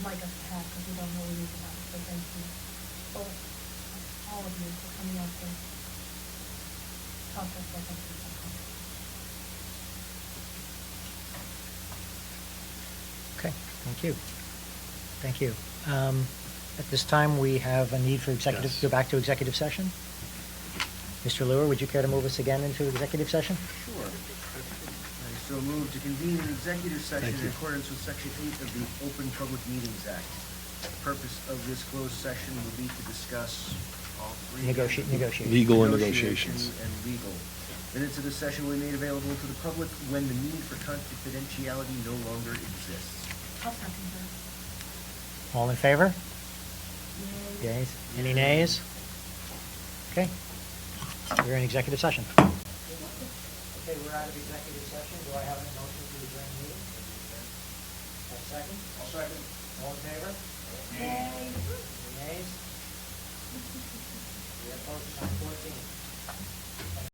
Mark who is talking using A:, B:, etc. A: like us to have, because we don't know anything about it, so thank you. Both, all of you for coming out to talk to us about this.
B: Okay, thank you. Thank you. Um, At this time, we have a need for executive,
C: Yes.
B: go back to executive session. Mr. Lewis, would you care to move us again into executive session?
D: Sure. I so move to convene an executive session in accordance with Section 8 of the Open Public Meetings Act. The purpose of this closed session will be to discuss all three...
B: Negotiate, negotiate.
C: Legal and
D: negotiation
C: negotiations.
D: And legal. Minutes of the session will be made available to the public when the need for confidentiality no longer exists.
A: I'll second that.
B: All in favor?
A: Yay.
B: Yays? Any nays? Okay. We're in executive session.
E: Okay, we're out of executive session. Do I have a motion to adjourn the meeting? A second? A second. All in favor? Any nays? We are posted on fourteen.